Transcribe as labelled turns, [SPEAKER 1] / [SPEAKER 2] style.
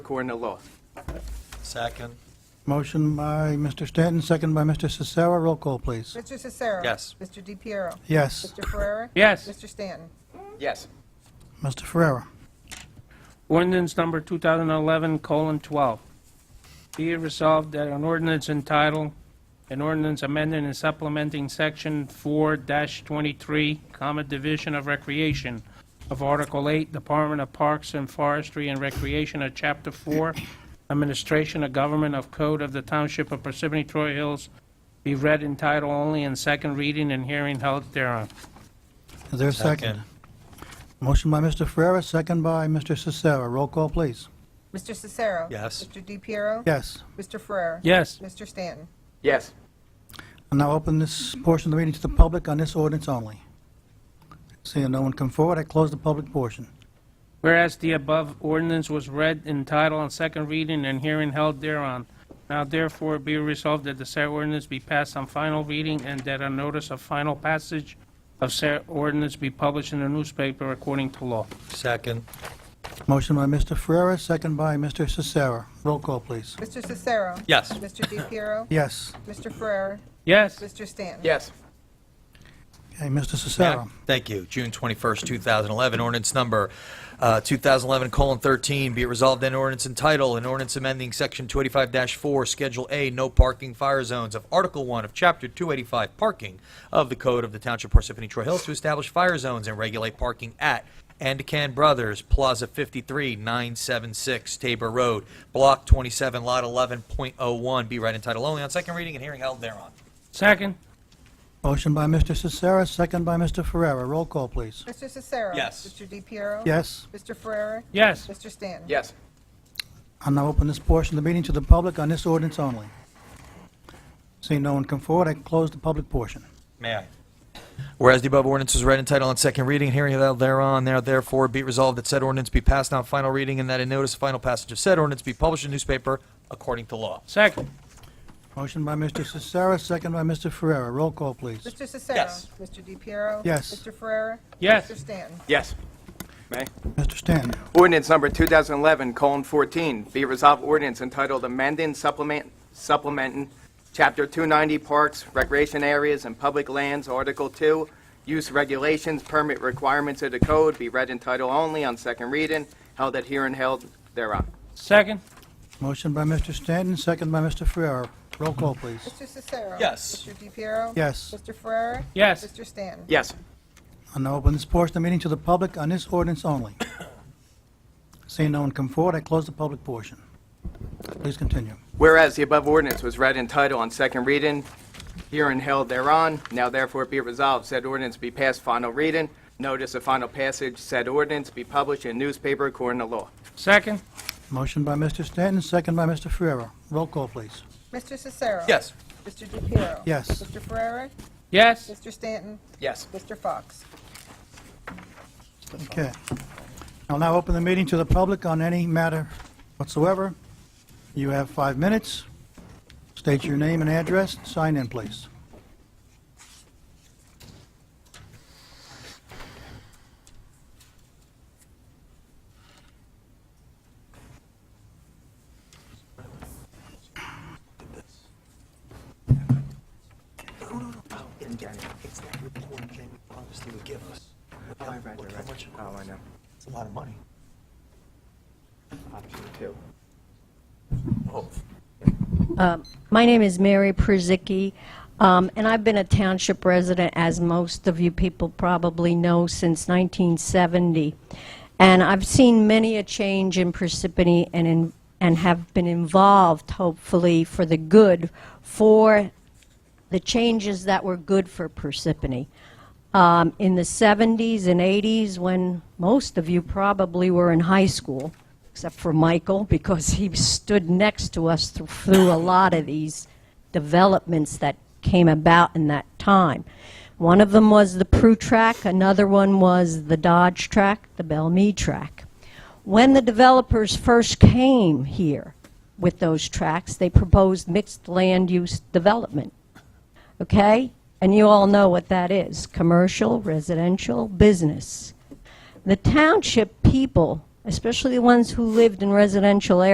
[SPEAKER 1] according to law.
[SPEAKER 2] Second.
[SPEAKER 3] Motion by Mr. Stanton, second by Mr. Cicero. Roll call, please.
[SPEAKER 4] Mr. Cicero.
[SPEAKER 2] Yes.
[SPEAKER 4] Mr. DePiero.
[SPEAKER 3] Yes.
[SPEAKER 4] Mr. Ferrera.
[SPEAKER 5] Yes.
[SPEAKER 4] Mr. Stanton.
[SPEAKER 1] Yes.
[SPEAKER 3] Mr. Ferrera.
[SPEAKER 5] Ordinance number 2011:12. Be it resolved that an ordinance entitled, an ordinance amending and supplementing Section 4-23, comma, Division of Recreation of Article 8, Department of Parks and Forestry and Recreation of Chapter 4, Administration of Government of Code of the Township of Parsippany Troy Hills, be read in title only and second reading and hearing held thereon.
[SPEAKER 3] Is there a second? Motion by Mr. Ferrera, second by Mr. Cicero. Roll call, please.
[SPEAKER 4] Mr. Cicero.
[SPEAKER 2] Yes.
[SPEAKER 4] Mr. DePiero.
[SPEAKER 3] Yes.
[SPEAKER 4] Mr. Ferrera.
[SPEAKER 5] Yes.
[SPEAKER 4] Mr. Stanton.
[SPEAKER 1] Yes.
[SPEAKER 3] I'll now open this portion of the meeting to the public on this ordinance only. Seeing no one come forward, I close the public portion.
[SPEAKER 5] Whereas the above ordinance was read in title on second reading and hearing held thereon, now therefore be resolved that the said ordinance be passed on final reading and that a notice of final passage of said ordinance be published in the newspaper according to law.
[SPEAKER 2] Second.
[SPEAKER 3] Motion by Mr. Ferrera, second by Mr. Cicero. Roll call, please.
[SPEAKER 4] Mr. Cicero.
[SPEAKER 2] Yes.
[SPEAKER 4] Mr. DePiero.
[SPEAKER 3] Yes.
[SPEAKER 4] Mr. Ferrera.
[SPEAKER 5] Yes,
[SPEAKER 4] Mr. Stanton.
[SPEAKER 1] Yes.
[SPEAKER 3] Okay, Mr. Cicero.
[SPEAKER 2] Thank you. June 21st, 2011, ordinance number uh, 2011:13, be it resolved in ordinance entitled, an ordinance amending Section 285-4, Schedule A, no parking fire zones of Article 1 of Chapter 285, parking of the Code of the Township of Parsippany Troy Hills to establish fire zones and regulate parking at and Can Brothers, Plaza 53, 976 Tabor Road, Block 27, Lot 11.01, be read in title only on second reading and hearing held thereon.
[SPEAKER 5] second,
[SPEAKER 3] Motion by Mr. Cicero, second by Mr. Ferrera. Roll call, please.
[SPEAKER 4] Mr. Cicero.
[SPEAKER 2] Yes.
[SPEAKER 4] Mr. DePiero.
[SPEAKER 3] Yes.
[SPEAKER 4] Mr. Ferrera.
[SPEAKER 5] yes,
[SPEAKER 4] Mr. Stanton.
[SPEAKER 1] Yes.
[SPEAKER 3] I'll now open this portion of the meeting to the public on this ordinance only. Seeing no one come forward, I close the public portion.
[SPEAKER 2] May I? Whereas the above ordinance is read in title on second reading and hearing held thereon, now therefore be it resolved that said ordinance be passed on final reading and that a notice of final passage of said ordinance be published in newspaper according to law.
[SPEAKER 5] second,
[SPEAKER 3] Motion by Mr. Cicero, second by Mr. Ferrera. Roll call, please.
[SPEAKER 4] Mr. Cicero.
[SPEAKER 2] Yes.
[SPEAKER 4] Mr. DePiero.
[SPEAKER 3] Yes.
[SPEAKER 4] Mr. Ferrera.
[SPEAKER 5] Yes.
[SPEAKER 4] Mr. Stanton.
[SPEAKER 1] Yes. May?
[SPEAKER 3] Mr. Stanton.
[SPEAKER 1] Ordinance number 2011:14, be resolved ordinance entitled amending supplement, supplementing Chapter 290 Parks, Recreation Areas, and Public Lands, Article 2, Use Regulations, Permit Requirements of the Code, be read in title only on second reading, held at hearing held thereon.
[SPEAKER 5] second,
[SPEAKER 3] Motion by Mr. Stanton, second by Mr. Ferrera. Roll call, please.
[SPEAKER 4] Mr. Cicero.
[SPEAKER 2] Yes.
[SPEAKER 4] Mr. DePiero.
[SPEAKER 3] Yes.
[SPEAKER 4] Mr. Ferrera.
[SPEAKER 5] Yes.
[SPEAKER 4] Mr. Stanton.
[SPEAKER 1] Yes.
[SPEAKER 3] I'll now open this portion of the meeting to the public on this ordinance only. Seeing no one come forward, I close the public portion. Please continue.
[SPEAKER 1] Whereas the above ordinance was read in title on second reading, hearing held thereon, now therefore be resolved, said ordinance be passed final reading, notice of final passage, said ordinance be published in newspaper according to law.
[SPEAKER 5] second,
[SPEAKER 3] Motion by Mr. Stanton, second by Mr. Ferrera. Roll call, please.
[SPEAKER 4] Mr. Cicero.
[SPEAKER 2] Yes.
[SPEAKER 4] Mr. DePiero.
[SPEAKER 3] Yes.
[SPEAKER 4] Mr. Ferrera.
[SPEAKER 5] yes,
[SPEAKER 4] Mr. Stanton.
[SPEAKER 1] Yes.
[SPEAKER 4] Mr. Fox.
[SPEAKER 3] Okay. I'll now open the meeting to the public on any matter whatsoever. You have five minutes. State your name and address. Sign in, please.
[SPEAKER 6] It's that report they promised they would give us. Oh, I read, I Oh, I know. It's a lot of money.
[SPEAKER 1] Option two.
[SPEAKER 7] My name is Mary Przycki, um, and I've been a township resident, as most of you people probably know, since 1970. And I've seen many a change in Parsippany and in- and have been involved, hopefully, for the good, for the changes that were good for Parsippany. Um, In the 70s and 80s, when most of you probably were in high school, except for Michael, because he stood next to us thr- through a lot of these developments that came about in that time. One of them was the Prue track, another one was the Dodge track, the Bellmead track. When the developers first came here with those tracks, they proposed mixed land use development okay? And you all know what that is commercial, residential, business. The township people, especially the ones who lived in residential areas,